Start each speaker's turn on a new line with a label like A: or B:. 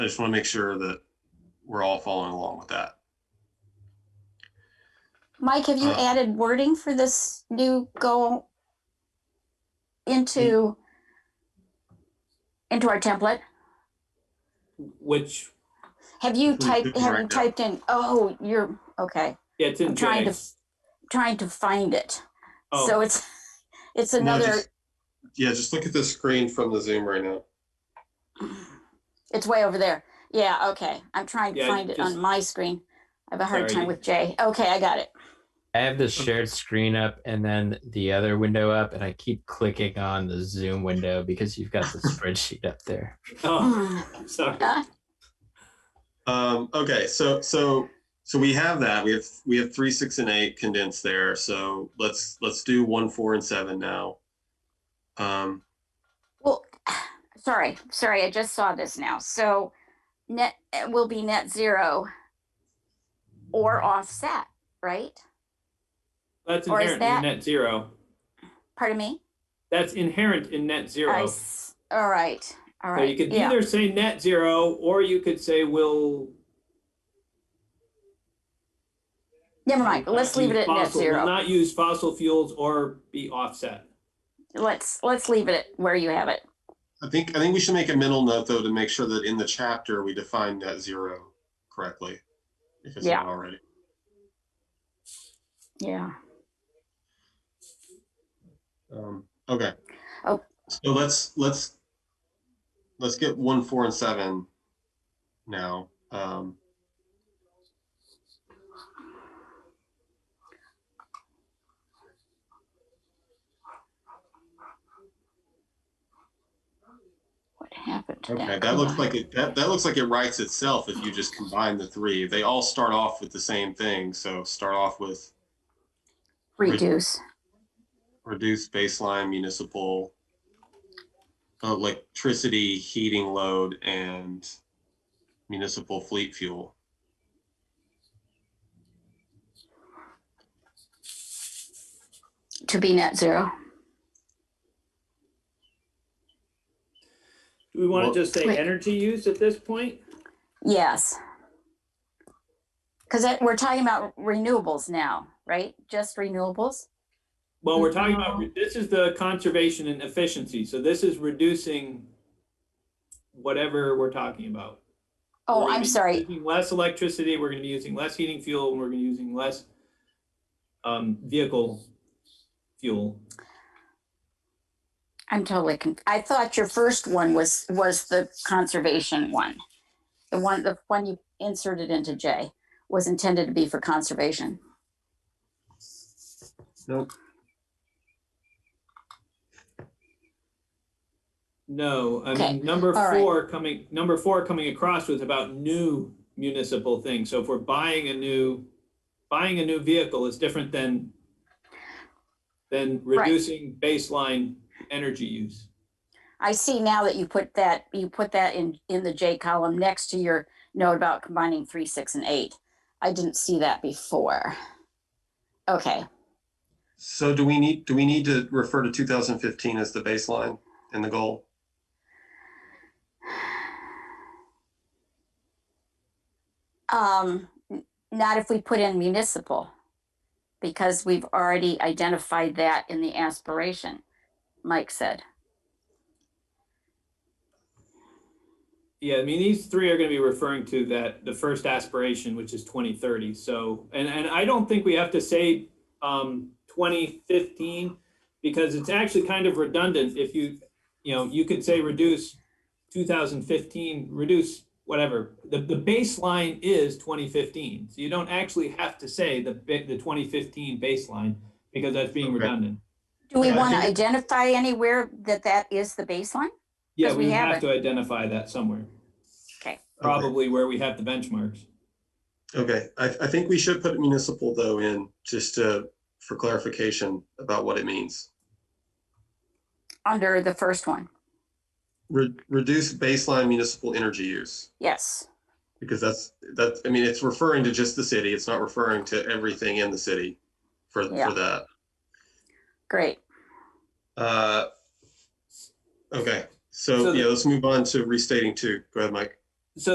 A: I just want to make sure that we're all following along with that.
B: Mike, have you
A: Uh,
B: added wording for this new goal
C: Mm.
B: into into our template?
C: Which,
B: Have you
A: Which we
B: typed,
A: do
B: have
A: right
B: you
A: now.
B: typed in, oh, you're, okay,
C: yeah, it's in
B: I'm trying
C: J.
B: to- trying to find it. So
C: Oh,
B: it's, it's
A: No,
B: another,
A: just- Yeah, just look at the screen from the Zoom right now.
B: it's way over there. Yeah, okay. I'm trying to
C: Yeah,
B: find it
C: just-
B: on my screen. I have a hard
C: Sorry,
B: time
C: you-
B: with J. Okay, I got it.
D: I have the shared screen up and then the other window up, and I keep clicking on the Zoom window because you've got the spreadsheet up there.
C: oh, I'm sorry.
B: Uh,
A: Um, okay, so, so, so we have that. We have, we have three, six and eight condensed there. So let's, let's do one, four and seven now. Um,
B: Well, sorry, sorry, I just saw this now. So net it will be net zero
C: Mm-hmm.
B: or offset, right?
C: That's
B: Or is
C: inherent
B: that-
C: in net zero.
B: Pardon me?
C: That's inherent in net
B: I
C: zero. So
B: s- All right, all right.
C: you could
B: yeah.
C: either say net zero, or you could say we'll.
B: Never mind, let's
C: not
B: leave it
C: uh,
B: at
C: use
B: net
C: fossil- we'll
B: zero.
C: Not use fossil fuels or be offset.
B: Let's, let's leave it at where you have it.
A: I think, I think we should make a mental note though, to make sure that in the chapter, we define that zero correctly. If it's not already.
B: Yeah.
A: Um, okay.
B: Oh.
A: So let's, let's, let's get one, four and seven now. Um,
B: What happened to that?
A: Okay, that looks like it, that, that looks like it writes itself if you just combine the three. They all start off with the same thing, so start off with
B: Reduce.
A: reduce baseline municipal uh, electricity, heating load, and municipal fleet fuel.
B: to be net zero.
C: Do we want
A: Well-
C: to just say
B: Wait.
C: energy use at this point?
B: Yes. Because we're talking about renewables now, right? Just renewables?
C: Well, we're talking about,
B: Mhm.
C: this is the conservation and efficiency, so this is reducing whatever we're talking about. We're
B: Oh,
C: gonna
B: I'm
C: be
B: sorry.
C: Using less electricity, we're gonna be using less heating fuel, and we're gonna be using less um, vehicle fuel.
B: I'm totally, con- I thought your first one was, was the conservation one. The one, the one you inserted into J was intended to be for conservation.
C: No, I
B: Okay,
C: mean, number
B: all right.
C: four coming, number four coming across was about new municipal things. So if we're buying a new, buying a new vehicle is different than than
B: Right.
C: reducing baseline energy use.
B: I see now that you put that, you put that in, in the J column next to your note about combining three, six, and eight. I didn't see that before. Okay,
A: So do we need, do we need to refer to two thousand fifteen as the baseline and the goal?
B: Um, n- not if we put in municipal, because we've already identified that in the aspiration, Mike said.
C: Yeah, I mean, these three are gonna be referring to that, the first aspiration, which is twenty thirty, so, and, and I don't think we have to say um, twenty fifteen, because it's actually kind of redundant if you, you know, you could say reduce two thousand fifteen, reduce whatever, the, the baseline is twenty fifteen, so you don't actually have to say the, ba- the twenty fifteen baseline, because that's being
A: Okay.
C: redundant.
B: Do we
A: Yeah, I
B: want to
A: think-
B: identify anywhere that that is the baseline?
C: Yeah,
B: Because we
C: we
B: have
C: have
B: it.
C: to identify that somewhere,
A: Okay.
C: probably where we have the benchmarks.
A: Okay, I, I think we should put municipal though in, just to, for clarification about what it means.
B: Under the first one,
A: Re- reduce baseline municipal energy use,
B: yes.
A: because that's, that's, I mean, it's referring to just the city, it's not referring to everything in the city for,
B: Yeah.
A: for that.
B: Great.
A: Uh, Okay,
C: So
A: so,
C: the-
A: yeah, let's move on to restating two, go ahead, Mike.